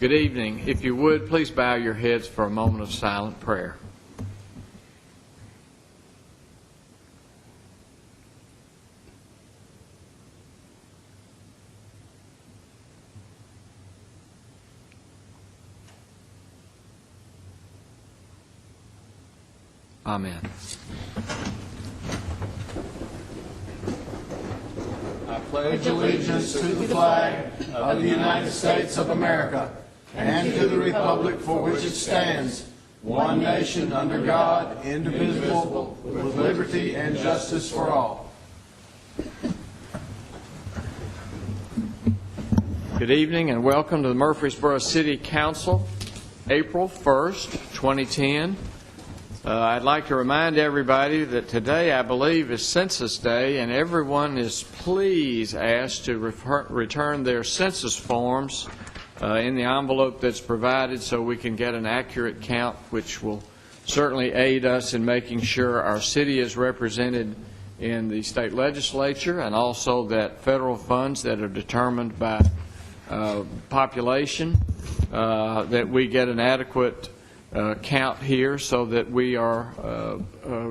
Good evening. If you would, please bow your heads for a moment of silent prayer. Amen. I pledge allegiance to the flag of the United States of America and to the republic for which it stands, one nation under God, indivisible, with liberty and justice for all. Good evening and welcome to the Murfreesboro City Council, April 1st, 2010. Uh, I'd like to remind everybody that today, I believe, is Census Day, and everyone is please asked to refer- return their census forms uh, in the envelope that's provided so we can get an accurate count, which will certainly aid us in making sure our city is represented in the state legislature, and also that federal funds that are determined by uh, population, uh, that we get an adequate uh, count here so that we are uh, uh,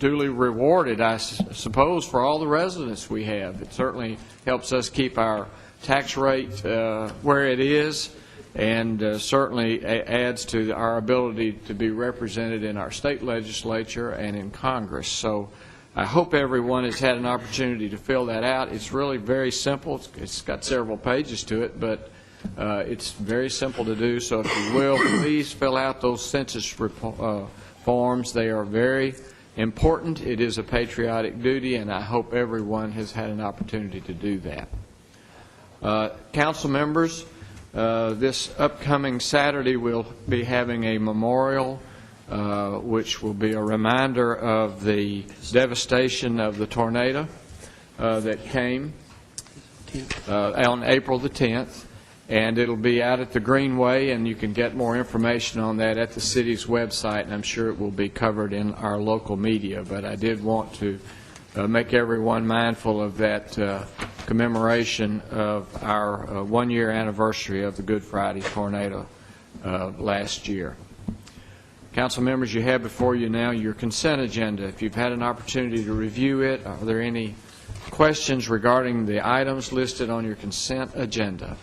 duly rewarded, I s- suppose, for all the residents we have. It certainly helps us keep our tax rate uh, where it is and uh, certainly a- adds to our ability to be represented in our state legislature and in Congress. So I hope everyone has had an opportunity to fill that out. It's really very simple. It's- It's got several pages to it, but uh, it's very simple to do. So if you will, please fill out those census repo- uh, forms. They are very important. It is a patriotic duty, and I hope everyone has had an opportunity to do that. Uh, Council members, uh, this upcoming Saturday, we'll be having a memorial, uh, which will be a reminder of the devastation of the tornado uh, that came uh, on April the 10th, and it'll be out at the Greenway, and you can get more information on that at the city's website, and I'm sure it will be covered in our local media, but I did want to uh, make everyone mindful of that uh, commemoration of our uh, one-year anniversary of the Good Friday tornado uh, last year. Council members, you have before you now your consent agenda. If you've had an opportunity to review it, are there any questions regarding the items listed on your consent agenda?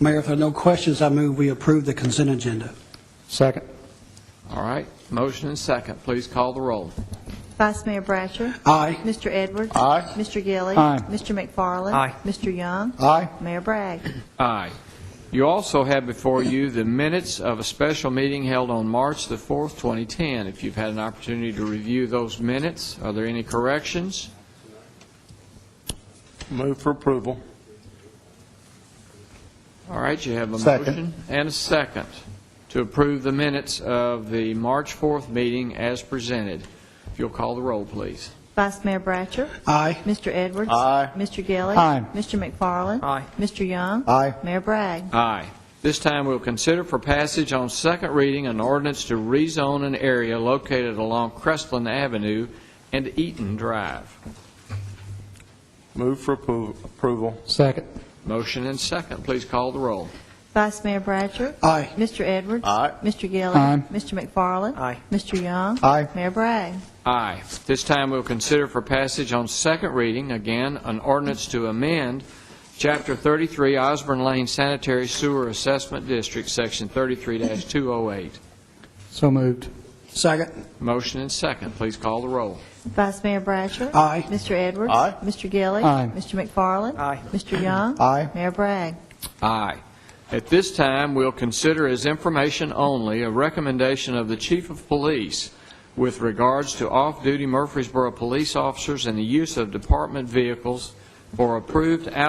Mayor, if there are no questions, I move we approve the consent agenda. Second. All right, motion and second, please call the roll. Vice Mayor Bratcher. Aye. Mr. Edwards. Aye. Mr. Gilly. Aye. Mr. McFarland. Aye. Mr. Young. Aye. Mayor Bragg. Aye. You also have before you the minutes of a special meeting held on March the 4th, 2010. If you've had an opportunity to review those minutes, are there any corrections? Move for approval. All right, you have a Second. motion and a second to approve the minutes of the March 4th meeting as presented. If you'll call the roll, please. Vice Mayor Bratcher. Aye. Mr. Edwards. Aye. Mr. Gilly. Aye. Mr. McFarland. Aye. Mr. Young. Aye. Mayor Bragg. Aye. This time, we'll consider for passage on second reading an ordinance to rezone an area located along Crestline Avenue and Eaton Drive. Move for appro- approval. Second. Motion and second, please call the roll. Vice Mayor Bratcher. Aye. Mr. Edwards. Aye. Mr. Gilly. Aye. Mr. McFarland. Aye. Mr. Young. Aye. Mayor Bragg. Aye. This time, we'll consider for passage on second reading, again, an ordinance to amend Chapter 33 Osborne Lane Sanitary Sewer Assessment District, Section 33-208. So moved. Second. Motion and second, please call the roll. Vice Mayor Bratcher. Aye. Mr. Edwards. Aye. Mr. Gilly. Aye. Mr. McFarland. Aye. Mr. Young. Aye. Mayor Bragg. Aye. At this time, we'll consider as information only a recommendation of the chief of police with regards to off-duty Murfreesboro police officers and the use of department vehicles for approved